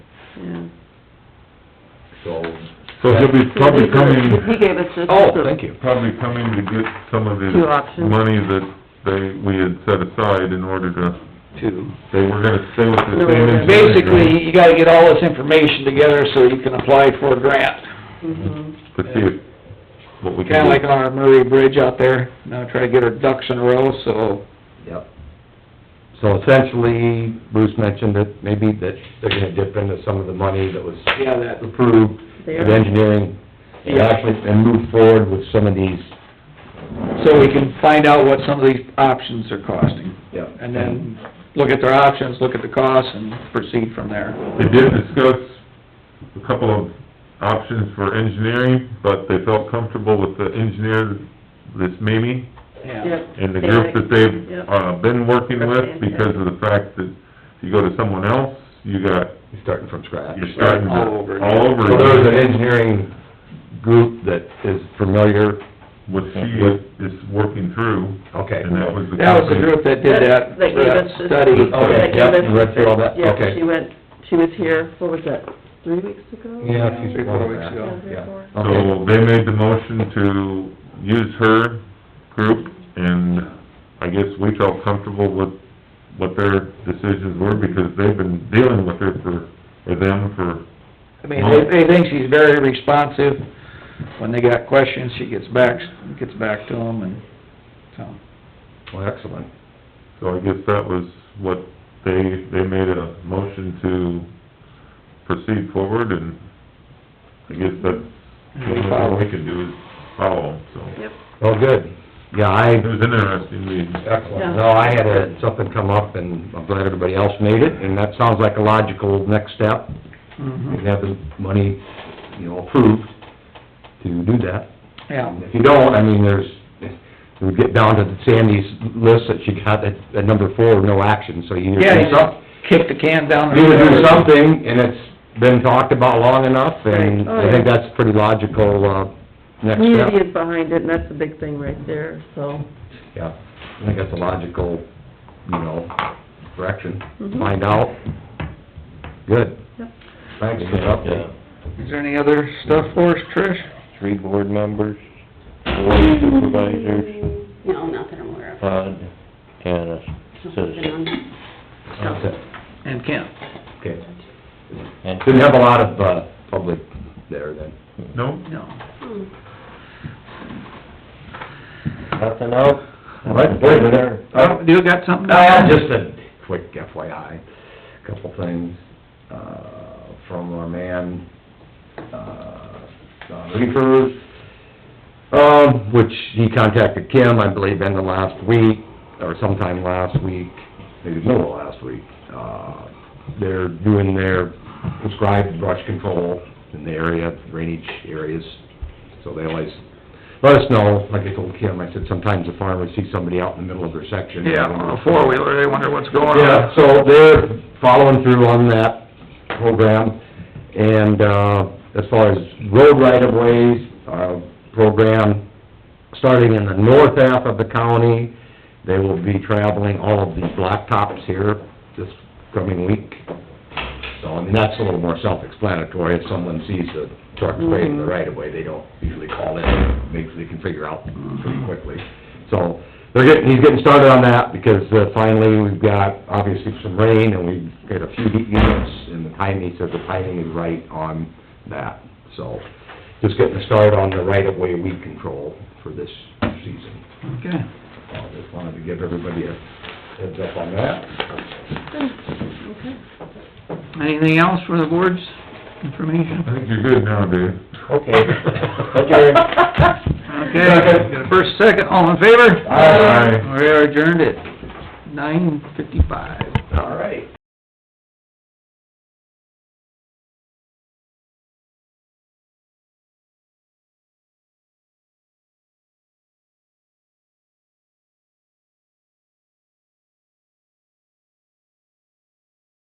so. So he'll be probably He coming, gave us this. Oh, thank you. probably coming to get some of the Few options. money that they, we had set aside in order to, Two. they were gonna stay with the No, same engineering. Basically, you gotta get all this information together so you can apply for a grant. Mhm. To see if, what we Kinda can like do. our Murray Bridge out there, now try to get our ducks in a row, so Yep. So essentially, Bruce mentioned that maybe that they're gonna dip into some of the money that was Yeah, that- approved There. of engineering, and Yeah. actually, and move forward with some of these. so we can find out what some of these options are costing. Yep. And then look at their options, look at the costs, and proceed from there. They did discuss a couple of options for engineering, but they felt comfortable with the engineer, this Mimi, Yeah. Yep. and the group Yep. that they've, uh, been working with, because of the fact that if you go to someone else, you got, You're starting from scratch. you're starting to, Right, all over. all over. So there's an engineering group that is familiar, What she is working through, okay. and that was the. That was the group that did that, They gave us that this. study. Okay, They gave yep, us- you read through all that? yeah, Okay. she went, she was here, what was that, three weeks ago? Yeah, a few- Three, four weeks ago. Yeah, three or four. Yeah, okay. So they made the motion to use her group, and I guess we felt comfortable with what their decisions were, because they've been dealing with her for, or them for, I mean, they, they think she's very responsive. When they got questions, she gets back, gets back to them and, so. Well, excellent. so I guess that was what they, they made a motion to proceed forward, and I guess that's the only thing we can do is follow, them, so. Yep, Well, good. Yeah, I, It was interesting meeting. Uh, Excellent. No, I had uh, something come up, and I'm glad everybody else made it, and that sounds like a logical next step. We Mhm. can have the money, you know, approved to do that. Yeah. If you don't, I mean, there's, we get down to Sandy's list that she got at, at number four, no action, so you Yeah, either you do some- just kick the can down the you road. either do something, and it's been talked about long enough, Right. and Oh, I think yeah. that's pretty logical, uh, next step. community is behind it, and that's the big thing right there, so, Yeah, I think that's a logical, you know, direction, Mhm. find out. Good. Yep. Thanks for the update. Is there any other stuff for us, Trish? three board members, four supervisors, No, not that I'm aware of. Todd, and a Been citizen. on that. That's it. And Kent? Okay. And Didn't have a lot of, uh, public there then. No? No. Hmm. nothing else? Oh, You got something? I had just a quick FYI, couple things, uh, from our man, uh, Don Reefers, um, which he contacted Kim, I believe, in the last week, or sometime last week, maybe middle of last week. Uh, they're doing their prescribed brush control in the area, drainage areas, so they always let us know, like I told Kim, I said, sometimes the farmers see somebody out in the middle of their section. Yeah, on a four-wheeler, they wonder what's going on. Yeah, so they're following through on that program, and, uh, as far as road right-of-ways, uh, program, starting in the north half of the county, they will be traveling all of these blacktops here this coming week. So, I mean, that's a little more self-explanatory, if someone sees a truck waving the right-of-way, they don't usually call in, maybe they can figure out pretty quickly. So, they're getting, he's getting started on that, because uh, finally, we've got, obviously, some rain, and we've got a few heat units, and the timing, he says the timing is right on that, so, just getting a start on the right-of-way weed control for this season. Okay. So, I Just wanted to give everybody a heads up on that. Anything else for the board's information? I think you're good now, Dave. Okay. Adjourned. Okay, got a first, second, all in favor? Aye. We are adjourned at nine fifty-five. All right.